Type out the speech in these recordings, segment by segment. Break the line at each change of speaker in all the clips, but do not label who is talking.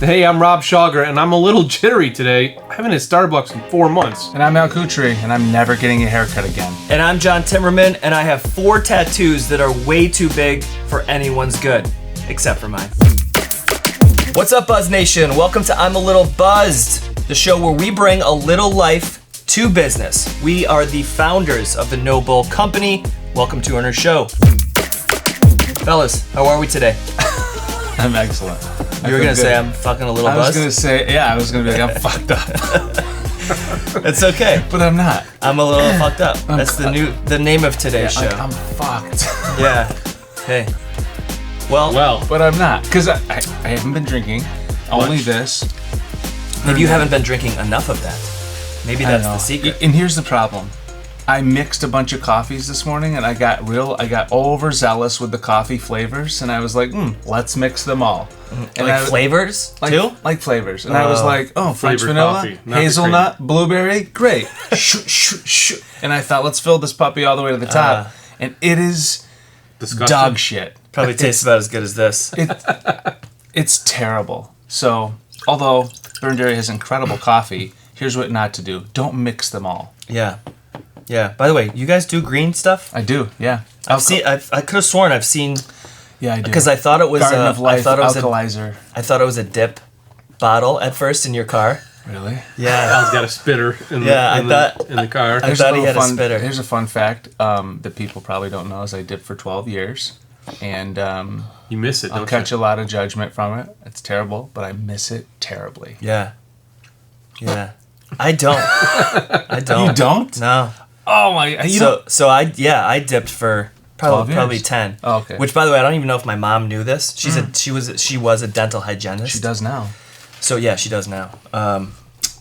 Hey, I'm Rob Schauger, and I'm a little jittery today. I haven't hit Starbucks in four months.
And I'm Al Kutri, and I'm never getting a haircut again.
And I'm John Timmerman, and I have four tattoos that are way too big for anyone's good, except for mine. What's up, Buzz Nation? Welcome to I'm a Little Buzzed, the show where we bring a little life to business. We are the founders of the No Bull Company. Welcome to our show. Fellas, how are we today?
I'm excellent.
You were gonna say I'm fucking a little
I was
buzzed.
gonna say, yeah, I was gonna be like, I'm fucked up,
It's okay.
but I'm not.
I'm a little fucked up. That's the new the name of today's
Like,
show.
I'm fucked,
yeah. Hey. Well,
Well,
but I'm not, cause I, I, I haven't been drinking. Only this.
maybe you haven't been drinking enough of that. Maybe
I
that's
know.
the secret.
And here's the problem. I mixed a bunch of coffees this morning, and I got real. I got overzealous with the coffee flavors, and I was like, hmm, let's mix them all. And
Mm, Uh, like
I-
flavors
like,
too.
like flavors. And I was like, oh, French
flavored
vanilla,
coffee, not the
hazelnut, blueberry, great. shoo, shoo, shoo. And I thought, let's fill this puppy all the way to the
Uh,
top. and it is
disgusting.
dog shit.
Probably tastes about as good as this.
It's terrible. So, although Burn Dairy has incredible coffee, here's what not to do don't mix them all.
Yeah. Yeah. By the way, you guys do green stuff?
I do, yeah.
I've seen. I've, I could have sworn I've seen
Yeah, I do.
because I thought it was.
Garden
a,
of Life
I thought it was a,
alkalizer.
I thought it was a dip bottle at first in your car.
Really?
Yeah.
Al's got a spitter in,
Yeah, I
the, in,
thought-
the, in the car.
I thought he
little
had a
fun,
spitter.
Here's a fun fact um, that people probably don't know is I did for 12 years. And um,
you miss it,
I'll
don't
catch
you?
a lot of judgment from it. It's terrible, but I miss it terribly.
Yeah. Yeah. I don't. I don't.
You don't?
No.
Oh my! You
so so I yeah I dipped for probably
12
probably
years.
ten.
Oh, okay. Mm.
Which by the way I don't even know if my mom knew this. She's a she was she was a dental hygienist.
she does now,
So yeah, she does now. Um,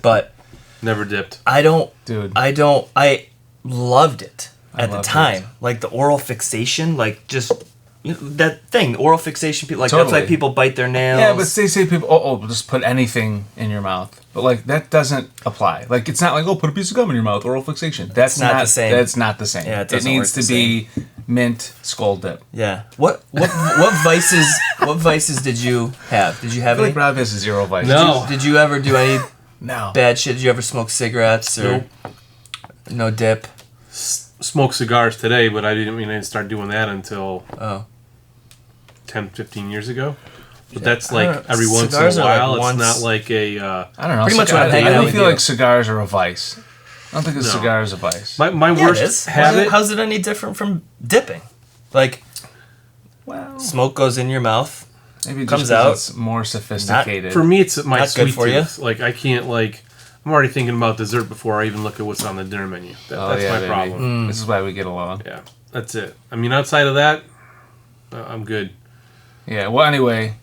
but
Never dipped.
I don't.
dude.
I don't. I loved it at the
loved
time. Like the oral fixation, like just you know, that thing, oral fixation. People like that's
Totally.
why people bite their nails.
yeah, but they say people, oh, oh, just put anything in your mouth, but like that doesn't apply. Like it's not like, oh, put a piece of gum in your mouth, oral fixation. That's
not the same.
That's not the same.
Yeah, it
it
doesn't
needs
work
to
the
be mint scald dip.
yeah. What what what vices? What vices did you have? Did you
I
have
feel
any?
like Rob has zero vices.
No.
Did, did you ever do any
no.
bad shit? Did you ever smoke cigarettes or
Nope.
no dip?
Smoked cigars today, but I didn't mean I didn't start doing that until
Oh.
10, 15 years ago. But that's
I don't
like
know.
every once in a
Cigars are like
while.
once-
it's not like a. Uh,
I don't know.
Pretty much
cigar- I,
what I'm
I
hanging out
don't
with
feel
you.
like cigars are a vice. I don't think a cigar is a vice.
my my
Yeah, it is.
worst habit.
How's it any different from dipping? Like
well,
smoke goes in your mouth.
maybe just
comes
'cause
out-
it's more sophisticated.
For me, it's my
Not
sweet
good for you?
tooth. Like I can't like. I'm already thinking about dessert before I even look at what's on the dinner menu. That,
Oh,
that's
yeah,
my
baby.
problem.
This is why we get along.
Yeah, that's it. I mean, outside of that, uh, I'm good.
Yeah. Well, anyway,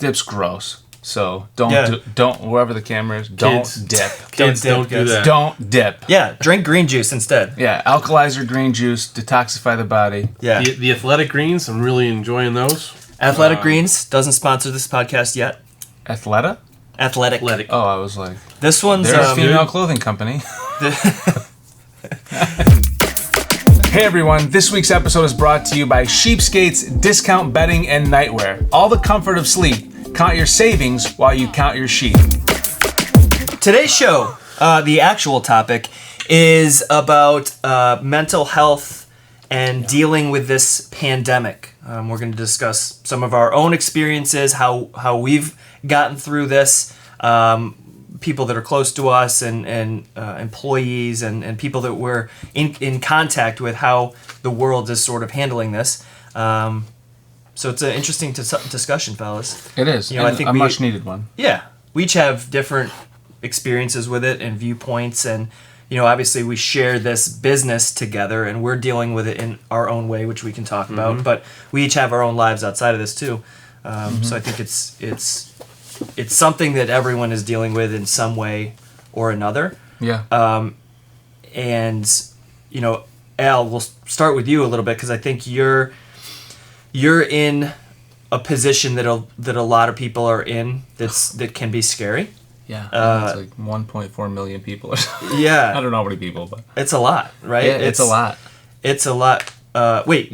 dip's gross. So don't
Yeah.
do, don't wherever the camera is. Don't
Kids.
dip.
Kids
dip,
don't, do
kids.
that.
don't dip. Yeah.
Yeah, drink green juice instead.
Alkalizer green juice detoxify the body.
Yeah.
The, the athletic greens, I'm really enjoying those.
Athletic Greens doesn't sponsor this podcast yet.
Athleta.
Athletic.
Athletic.
Oh, I was like,
This one's
there's a
um,
female clothing company. Hey everyone, this week's episode is brought to you by Sheepskate's Discount Bedding and Nightwear. All the comfort of sleep. Count your savings while you count your sheep.
today's show. Uh, the actual topic is about uh, mental health and dealing with this pandemic. Um, we're going to discuss some of our own experiences, how how we've gotten through this. Um, people that are close to us and and uh, employees and, and people that we're in, in contact with how the world is sort of handling this um, so it's an interesting dis- discussion fellas
It is.
You know, I
and
think
a
we-
much needed one.
yeah we each have different experiences with it and viewpoints and you know obviously we share this business together and we're dealing with it in our own way which we can talk about but we each have our own lives outside of this too um, so i think it's it's it's something that everyone is dealing with in some way or another
Yeah.
and you know al we'll s- start with you a little bit because i think you're you're in a position that a, that a lot of people are in that's that can be scary
yeah.
uh,
it's like 1.4 million people or something. I
yeah
don't know how many people, but
it's a lot right
yeah, it's, a lot.
it's a lot uh wait